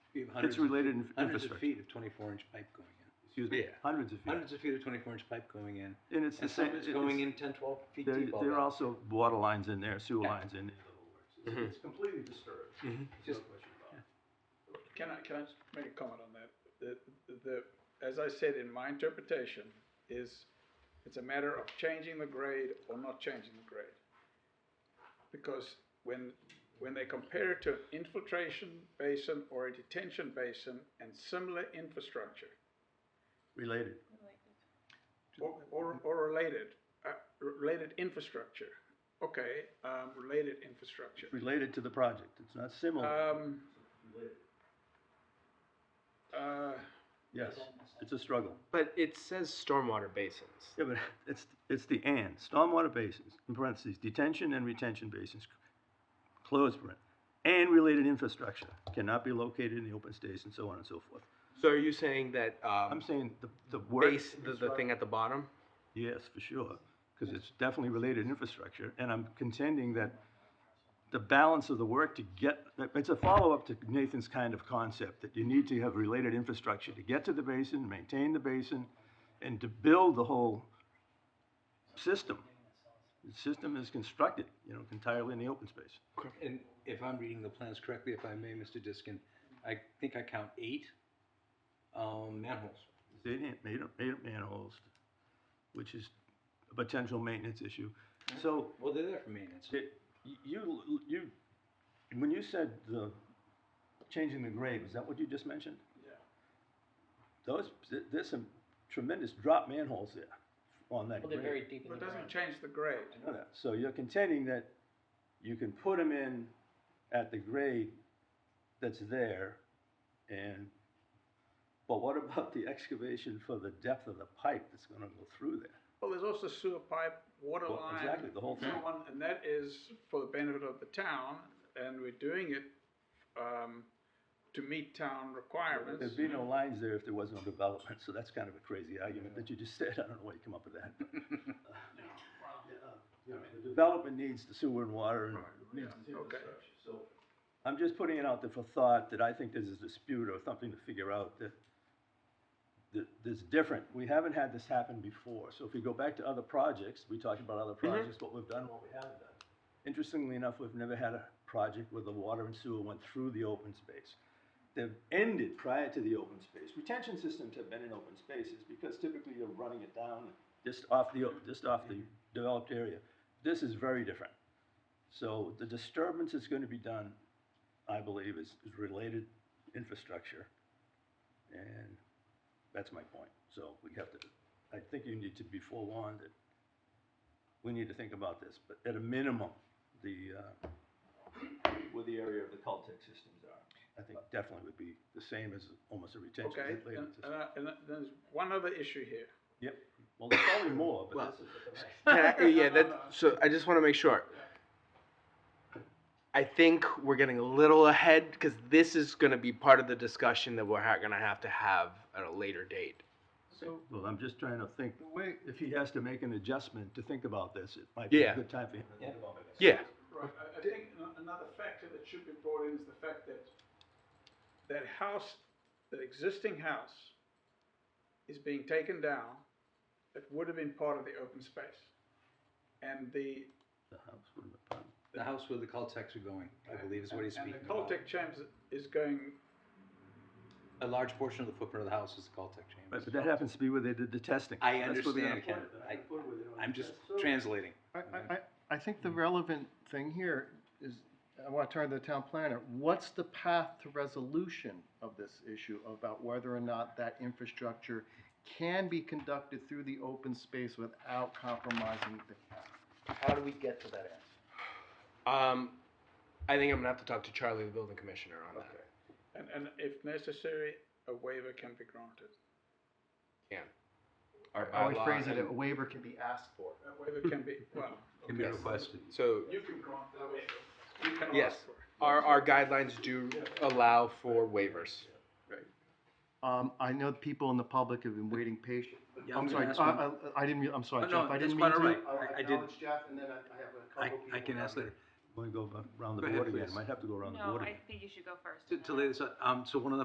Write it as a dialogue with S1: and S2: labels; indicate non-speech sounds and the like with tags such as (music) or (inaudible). S1: It's
S2: hundreds,
S1: related in-
S2: hundreds of
S1: infrastructure.
S2: feet of twenty-four inch pipe going in.
S1: Excuse me,
S2: Yeah.
S1: hundreds of feet.
S2: Hundreds of feet of twenty-four inch pipe going in,
S1: And it's the
S2: and
S1: same.
S2: some is
S1: it-
S2: going
S1: it's-
S2: in ten, twelve feet
S1: There,
S2: deep. all
S1: there are
S2: that.
S1: also water lines in there, sewer
S2: Yeah. Mm-hmm.
S1: lines in there.
S3: It's- Mhm.
S1: completely disturbed.
S3: Mhm.
S2: Just-
S4: Can I, can I just make a comment on that? The, the, as I said, in my interpretation, is it's a matter of changing the grade or not changing the grade. Because when, when they compare it to an infiltration basin or a detention basin and similar infrastructure,
S1: Related.
S4: or, or, or related, uh, related infrastructure, okay, um, related infrastructure.
S1: It's related to the project. It's not similar.
S4: Um. Uh,
S1: Yes, it's a struggle.
S3: But it says stormwater basins.
S1: Yeah, but (laughs) it's, it's the and, stormwater basins, in parentheses, detention and retention basins, close parent, and related infrastructure cannot be located in the open space and so on and so forth.
S3: So are you saying that um,
S1: I'm saying the, the word.
S3: base the, the thing at the bottom?
S1: Yes, for sure, because it's definitely related infrastructure, and I'm contending that the balance of the work to get, it's a follow-up to Nathan's kind of concept, that you need to have related infrastructure to get to the basin, maintain the basin, and to build the whole system. The system is constructed, you know, entirely in the open space.
S2: And if I'm reading the plans correctly, if I may, Mr. Diskin, I think I count eight, um, manholes.
S1: They didn't, made up, made up manholes, which is a potential maintenance issue. So
S2: Well, they're there for maintenance.
S1: It, you, you, when you said the changing the grade, was that what you just mentioned?
S4: Yeah.
S1: Those, th- there's some tremendous drop manholes there on that
S5: Well, they're
S1: grade.
S5: very deep in
S4: but
S5: the
S4: it
S5: ground.
S4: doesn't change the grade.
S1: I know that. So you're contending that you can put them in at the grade that's there and, but what about the excavation for the depth of the pipe that's gonna go through there?
S4: Well, there's also sewer pipe, water
S1: Well,
S4: line.
S1: exactly, the whole
S4: so
S1: thing.
S4: on, And that is for the benefit of the town, and we're doing it, um, to meet town requirements.
S1: There'd be no lines there if there was no development, so that's kind of a crazy argument that you just said, I don't know why you come up with that. but- Yeah, uh, The development needs the sewer and water and needs the
S4: okay.
S1: infrastructure, so. I'm just putting it out there for thought that I think there's a dispute or something to figure out that, that, that's different. We haven't had this happen before, so if we go back to other projects, we talked about other projects, what we've done, what we haven't done. Interestingly enough, we've never had a project where the water and sewer went through the open space. They've ended prior to the open space. Retention systems have been in open spaces because typically you're running it down just off the, just off the developed area. This is very different. So the disturbance that's gonna be done, I believe, is, is related infrastructure. And that's my point. So we have to, I think you need to be forewarned that we need to think about this, but at a minimum, the, uh, where the area of the cultic systems are, I think definitely would be the same as almost a retention.
S4: Okay, Uh,
S1: related
S4: and,
S1: system.
S4: and, I- and there's one other issue here.
S1: Yep, well, there's probably more, but this is.
S3: Can I- yeah, that, so I just want to make sure. I think we're getting a little ahead because this is going to be part of the discussion that we're ha- going to have to have at a later date.
S5: So,
S1: Well, I'm just trying to think, if he has to make an adjustment to think about this, it might be a
S3: Yeah.
S1: good time for him. to think about it.
S3: Yeah.
S4: Right, I, I think ano- another factor that should be brought in is the fact that that house, that existing house is being taken down, that would have been part of the open space. And the.
S1: The house would have been-
S2: (laughs) The house where the cul-de-sacs are going, I believe is what he's speaking
S4: And the
S2: about.
S4: Caltech Champs is going,
S2: A large portion of the footprint of the house is the cul-de-sac
S1: But, but
S2: chambers.
S1: that happens to be where they did the testing.
S2: I
S1: That's where they
S2: understand, Ken.
S1: put it. They're not gonna put it where they don't
S2: I'm
S1: do
S2: just
S1: that. So-
S2: translating.
S6: I, I, I- I think the relevant thing here is, I want to turn to the town planner, what's the path to resolution of this issue about whether or not that infrastructure can be conducted through the open space without compromising the, how do we get to that end?
S3: Um, I think I'm going to have to talk to Charlie, the building commissioner, on that.
S4: and, and if necessary, a waiver can be granted.
S3: Our
S6: I would
S3: bylaw
S6: phrase it,
S3: and-
S6: a waiver can be asked for.
S4: A waiver can be, well,
S1: Can be
S3: Yes.
S1: requested.
S3: So
S4: you can grant the waiver. You can
S3: Yes.
S4: ask for it.
S3: our, our guidelines do allow for waivers.
S6: Um, I know people in the public have been waiting patiently.
S1: Yeah,
S6: I'm
S1: gonna
S6: sorry,
S1: ask
S6: I,
S1: one-
S6: I, I didn't, mean- I'm
S2: Oh,
S6: sorry,
S2: no,
S6: Jeff, I
S2: that's
S6: didn't mean
S2: quite
S6: to.
S2: all right. I- I did-
S6: acknowledge Jeff, and then I, I have a
S2: I,
S6: couple
S2: I can
S6: people
S2: ask
S6: down
S2: later.
S1: Wanna go around the
S2: Go ahead,
S1: board again,
S2: please.
S1: might have to go around the
S7: No,
S1: board again.
S7: I think you should go first.
S2: To,
S7: and
S2: to
S7: then
S2: lay this out, um, so one of the